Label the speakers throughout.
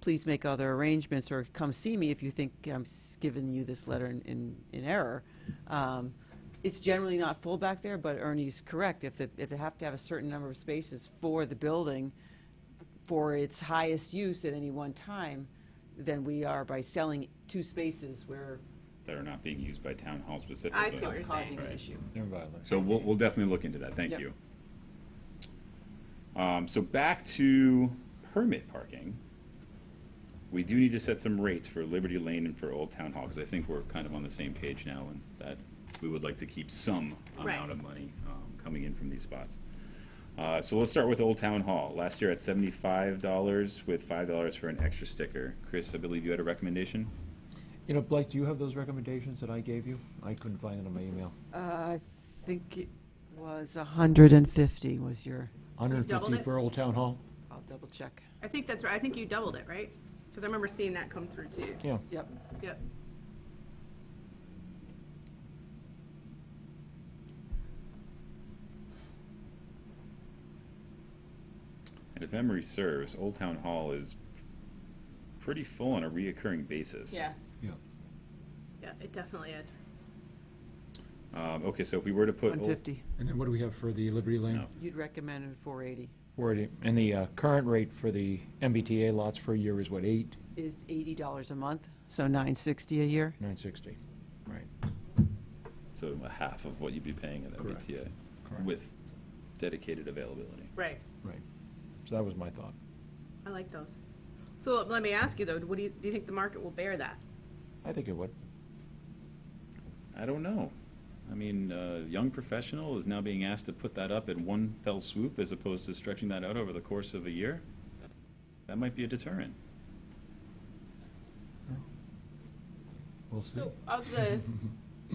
Speaker 1: please make other arrangements or come see me if you think I'm s- giving you this letter in, in, in error. Um, It's generally not full back there, but Ernie's correct. If, the- if they have to have a certain number of spaces for the building, for its highest use at any one time, then we are by selling two spaces where
Speaker 2: that are not being used by town hall specifically.
Speaker 3: I see what you're
Speaker 1: causing
Speaker 3: saying.
Speaker 1: an
Speaker 2: Right.
Speaker 1: issue.
Speaker 4: They're in violation.
Speaker 2: So we'll, we'll definitely look into that, thank
Speaker 1: Yep.
Speaker 2: you. Um, so back to permit parking. We do need to set some rates for Liberty Lane and for Old Town Hall, because I think we're kind of on the same page now, and that we would like to keep some amount
Speaker 3: Right.
Speaker 2: of money, um, coming in from these spots. Uh, so let's start with Old Town Hall, last year at seventy-five dollars with five dollars for an extra sticker. Chris, I believe you had a recommendation?
Speaker 4: You know, Blake, do you have those recommendations that I gave you? I couldn't find it on my email.
Speaker 1: Uh, I think it was 150 was your,
Speaker 4: Hundred and
Speaker 3: doubled
Speaker 4: fifty
Speaker 3: it?
Speaker 4: for Old Town Hall?
Speaker 1: I'll double check.
Speaker 3: I think that's right. I think you doubled it, right? Because I remember seeing that come through too.
Speaker 4: Yeah.
Speaker 1: Yep.
Speaker 3: Yep.
Speaker 2: And if memory serves, Old Town Hall is pretty full on a reoccurring basis.
Speaker 3: Yeah.
Speaker 4: Yeah.
Speaker 3: Yeah, it definitely is.
Speaker 2: Um, okay, so if we were to put. Old-
Speaker 1: 150.
Speaker 4: And then what do we have for the Liberty Lane?
Speaker 2: No.
Speaker 1: You'd recommended 480.
Speaker 4: Where it- and the uh, current rate for the MBTA lots for a year is what, eight,
Speaker 1: Is $80 a month, so 960 a year?
Speaker 4: nine sixty? Right.
Speaker 2: So a half of what you'd be paying at
Speaker 4: Correct.
Speaker 2: MBTA
Speaker 4: Correct.
Speaker 2: with dedicated availability.
Speaker 3: Right.
Speaker 4: Right. So that was my thought.
Speaker 3: I like those. So let me ask you though, what do you, do you think the market will bear that?
Speaker 4: I think it would.
Speaker 2: I don't know. I mean, uh, young professional is now being asked to put that up in one fell swoop as opposed to stretching that out over the course of a year. That might be a deterrent.
Speaker 4: We'll see.
Speaker 3: So of the,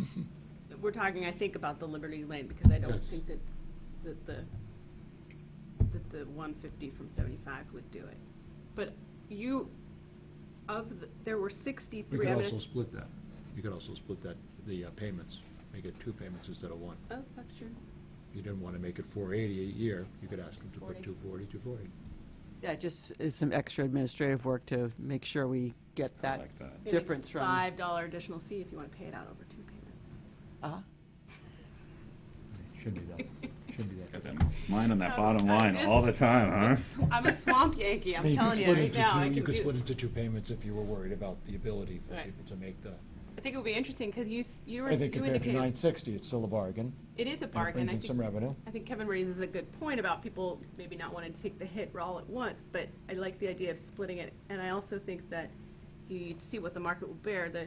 Speaker 3: we're talking, I think, about the Liberty Lane because I don't
Speaker 4: Yes.
Speaker 3: think that, that the, that the one fifty from seventy-five would do it. But you, of, the- there were
Speaker 4: You
Speaker 3: sixty-three.
Speaker 4: could
Speaker 3: I'm gonna-
Speaker 4: also split that. You could also split that, the uh, payments, make it two payments instead of one.
Speaker 3: Oh, that's true.
Speaker 4: If you didn't want to make it four eighty a year, you could ask them to put
Speaker 3: 40.
Speaker 4: two forty, two forty.
Speaker 1: Yeah, just is some extra administrative work to make sure we get
Speaker 2: I
Speaker 1: that.
Speaker 2: like that.
Speaker 3: And it's
Speaker 1: Difference from-
Speaker 3: Five dollar additional fee if you want to pay it out over two payments.
Speaker 1: Uh-huh.
Speaker 4: Shouldn't be that, shouldn't be that.
Speaker 2: Got that mind on that bottom
Speaker 3: Oh, I
Speaker 2: line all the
Speaker 3: missed-
Speaker 2: time, huh?
Speaker 3: Sw- I'm a swamp Yankee, I'm
Speaker 4: You could
Speaker 3: telling you
Speaker 4: split it
Speaker 3: right
Speaker 4: into
Speaker 3: now.
Speaker 4: two-
Speaker 3: I
Speaker 4: You
Speaker 3: can
Speaker 4: could
Speaker 3: do-
Speaker 4: split into two payments if you were worried about the ability for
Speaker 3: Right.
Speaker 4: people to make the,
Speaker 3: I think it would be interesting because you, s- you were,
Speaker 4: I think
Speaker 3: you
Speaker 4: compared to nine
Speaker 3: indicated,
Speaker 4: sixty, it's still a bargain.
Speaker 3: it is
Speaker 4: and
Speaker 3: a
Speaker 4: it
Speaker 3: bargain.
Speaker 4: brings
Speaker 3: I
Speaker 4: in some
Speaker 3: think,
Speaker 4: revenue.
Speaker 3: I think Kevin raises a good point about people maybe not wanting to take the hit all at once, but I like the idea of splitting it. And I also think that you'd see what the market will bear. The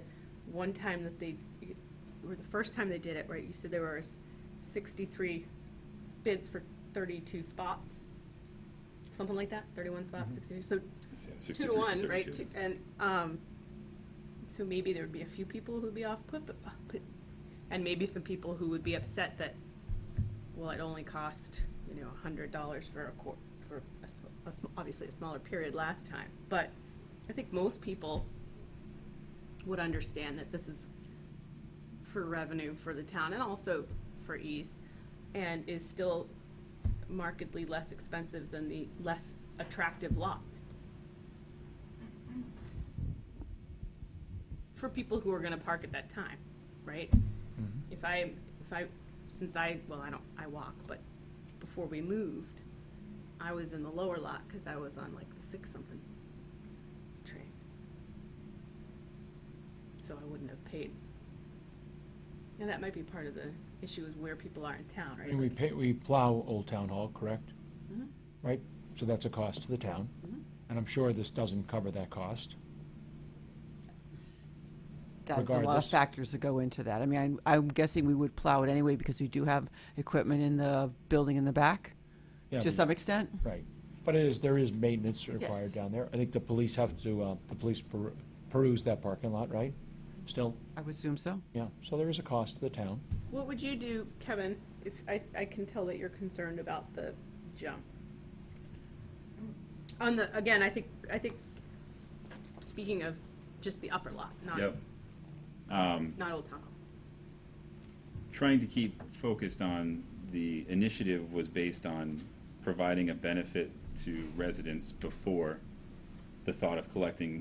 Speaker 3: one time that they, or the first time they did it, right, you said there was sixty-three bids for thirty-two spots? Something like that, thirty-one
Speaker 4: Mm-hmm.
Speaker 3: spots, sixty-two, so two
Speaker 2: 63
Speaker 3: to
Speaker 2: for
Speaker 3: one, right?
Speaker 2: 32.
Speaker 3: Two- And, um, so maybe there would be a few people who'd be off put, but, uh, put- and maybe some people who would be upset that, well, it only cost, you know, a hundred dollars for a quar, for a, sm- a sm- obviously a smaller period last time. But I think most people would understand that this is for revenue for the town and also for ease, and is still markedly less expensive than the less attractive lot. For people who are gonna park at that time, right? If I, if I, since I, well, I don't, I walk, but before we moved, I was in the lower lot, cause I was on like the six something train. So I wouldn't have paid. And that might be part of the issue is where people are in town, right?
Speaker 4: And we pay, we plow Old Town Hall, correct?
Speaker 3: Mm-hmm.
Speaker 1: Mhm.
Speaker 4: Right? So that's a cost to the town.
Speaker 1: Mhm.
Speaker 4: And I'm sure this doesn't cover that cost.
Speaker 1: That's a lot of
Speaker 4: Regardless.
Speaker 1: factors that go into that. I mean, I'm- I'm guessing we would plow it anyway because we do have equipment in the building in the back,
Speaker 4: Yeah,
Speaker 1: to
Speaker 4: but-
Speaker 1: some extent.
Speaker 4: Right. But it is, there is maintenance
Speaker 1: Yes.
Speaker 4: required down there. I think the police have to, uh, the police per- peruse that parking lot, right? Still,
Speaker 1: I would assume so.
Speaker 4: yeah. So there is a cost to the town.
Speaker 3: What would you do, Kevin, if, I, I can tell that you're concerned about the jump? On the, again, I think, I think, speaking of just the upper lot, not,
Speaker 2: Yep. Um,
Speaker 3: not Old Town Hall.
Speaker 2: trying to keep focused on the initiative was based on providing a benefit to residents before the thought of collecting